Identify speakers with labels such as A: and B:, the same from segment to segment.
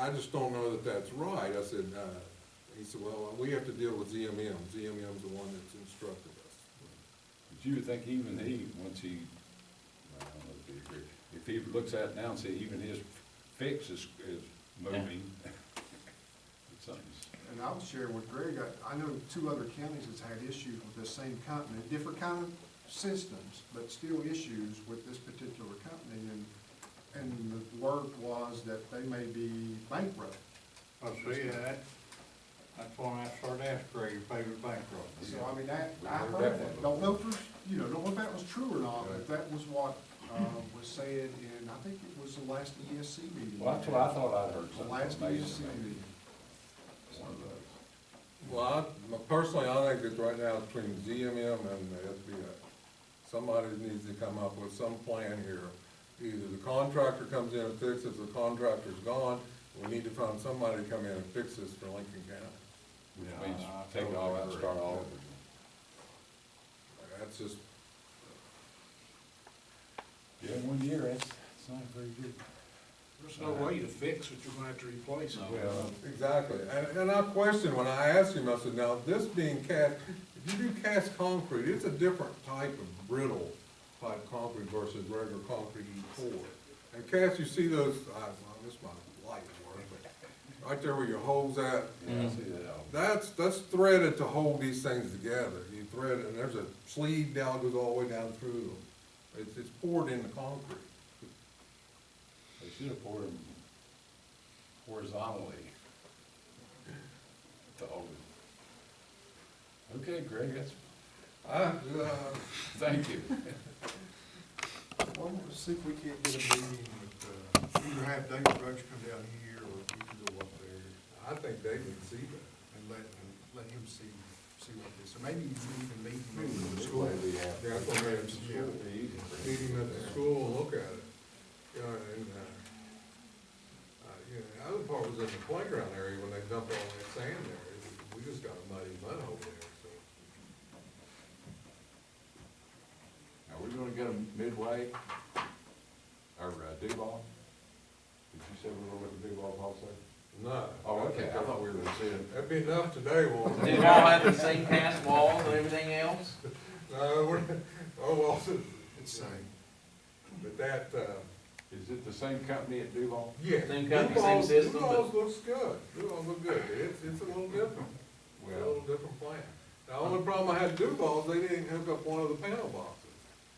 A: I just don't know that that's right. I said, uh, he said, well, we have to deal with ZMM. ZMM's the one that's instructed us.
B: But you would think even he, once he, I don't know if he agreed, if he looks at it now and say even his fix is, is moving, it's something's,
C: And I'll share with Greg, I, I know two other counties that's had issues with this same company, different kind of systems, but still issues with this particular company, and, and the word was that they may be bankrupt.
D: I see that, that's why I started asking Greg if they were bankrupt.
C: So, I mean, that,
B: We
C: I
B: heard that
C: heard that,
B: one.
C: don't know for, you know, don't know if that was true or not, but that was what, um, was said in, I think it was the last ESC meeting.
B: well, that's what I thought I'd heard
C: The last
B: something
C: ESC
B: amazing.
C: meeting.
B: maybe. One of those.
A: Well, I, personally, I think that right now between ZMM and the SBA, somebody needs to come up with some plan here. Either the contractor comes in and fixes, the contractor's gone, we need to find somebody to come in and fix this for Lincoln County.
B: Which
D: Yeah,
B: means
D: I- I
B: take it all out, and
D: totally
B: start
D: agree.
B: all over again.
A: That's just,
B: Yeah, one year, that's, it's not very good.
E: There's no way to fix it, you're gonna have to replace it.
B: Well,
A: Exactly, and, and I questioned, when I asked him, I said, now, this being cast, if you do cast concrete, it's a different type of brittle type concrete versus regular concrete you pour. And cast, you see those, I, well, this might light work, but right there where your holes at,
B: yeah, I see that all.
A: that's, that's threaded to hold these things together. You thread it, and there's a sleeve down, goes all the way down through them. It's, it's poured into concrete.
B: They should have poured them horizontally to all of it. Okay, Greg, that's,
A: I, uh,
B: thank you.
D: Well, let's see if we can't get a meeting with, uh, either have David Roach come down here or we can go up there
A: I think they would see that.
D: and let, and let him see, see what this, or maybe you can even meet him at the school.
A: Yeah, that's what made him school. Hmm. meet him at the school and look at it. You know, and, uh, uh, you know, the other part was in the playground area when they dumped all that sand there. It- We just got a muddy mud hole there, so.
B: Are we gonna get them midway, or uh, Duval? Did you say we were gonna get Duval also?
A: No.
B: Oh, okay, I thought we were gonna see it.
A: That'd be enough today, Walter.
F: Do you all have the same pass walls and everything else?
A: No, we're, oh, well,
D: It's same.
A: but that, uh,
B: Is it the same company at Duval?
A: yeah.
F: Same company, same
A: Duval's-
F: system, but-
A: Duval's looks good. Duval's look good. It's, it's a little different. It's a little different plan. The only problem I had at Duval's, they didn't hook up one of the panel boxes.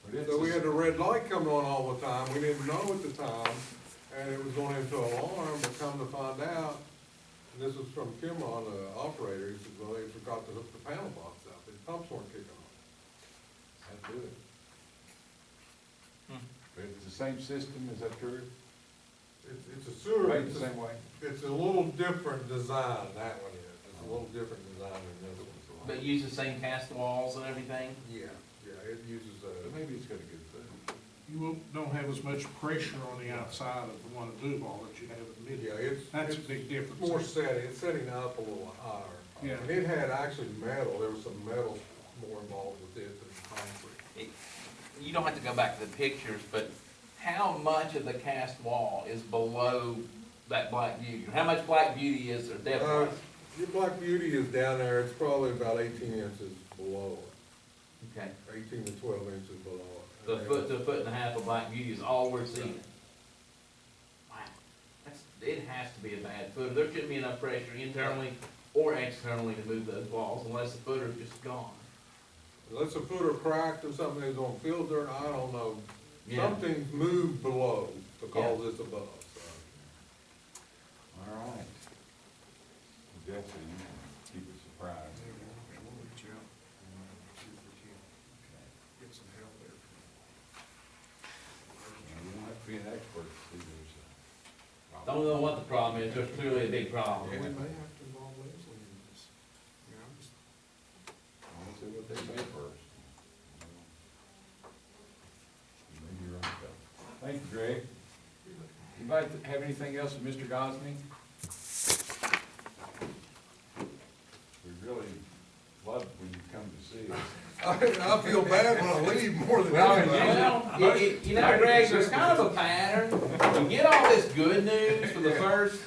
B: but it's
A: So we
B: the-
A: had the red light coming on all the time, we didn't know at the time, and it was going into alarm, but come to find out, and this was from Kim on the operator, he said, well, they forgot to hook the panel box up, the pumps weren't kicking on.
B: That'd do it. But it's the same system, is that true?
A: It's, it's a sewer,
B: Made
A: it's,
B: the same way?
A: it's a little different design, that one is, it's a little different design than this one.
F: But use the same cast walls and everything?
A: Yeah, yeah, it uses
B: But
A: a,
B: Maybe it's got a good thing.
E: You won't- don't have as much pressure on the outside of the one at Duval that you have at
A: yeah,
E: Midway.
A: it's.
E: That's a
A: it's-
E: big
A: It's more
E: difference.
A: setting, it's setting up a little higher.
E: Yeah.
A: And it had actually metal, there was some metal more involved with it than concrete.
F: It- You don't have to go back to the pictures, but how much of the cast wall is below that black beauty? How much black beauty is there
A: Uh,
F: depth-wise?
A: Your Black Beauty is down there, it's probably about eighteen inches below it,
F: Okay,
A: eighteen to twelve inches below
F: the
A: it.
F: foot to a foot and a half of black beauty is all we're seeing. Wow, that's, it has to be a bad footer. There shouldn't be enough pressure internally or externally to move those walls unless the footer's just gone.
A: Unless a footer cracked or something is on field dirt, I don't know,
F: Yeah.
A: something's moved below to cause
F: Yeah.
A: this above, so.
B: All right. Jesse, you keep us surprised.
D: Yeah, we'll- we'll reach out and, uh, see if we can get some help there.
B: You don't have to be an expert to see those. uh,
F: Don't know what the problem is, there's clearly a big problem.
D: And we may have to involve Leslie in this, you know, just
B: I wanna see what they say first. Maybe you're right, though. Thank you, Greg. Anybody th- have anything else of Mr. Gosney? We really love when you come to see us.
A: I, I feel bad when I leave more than
B: Well,
A: anybody.
F: Well, you- you you know, Greg, there's kind of a pattern. You get all this good news for the first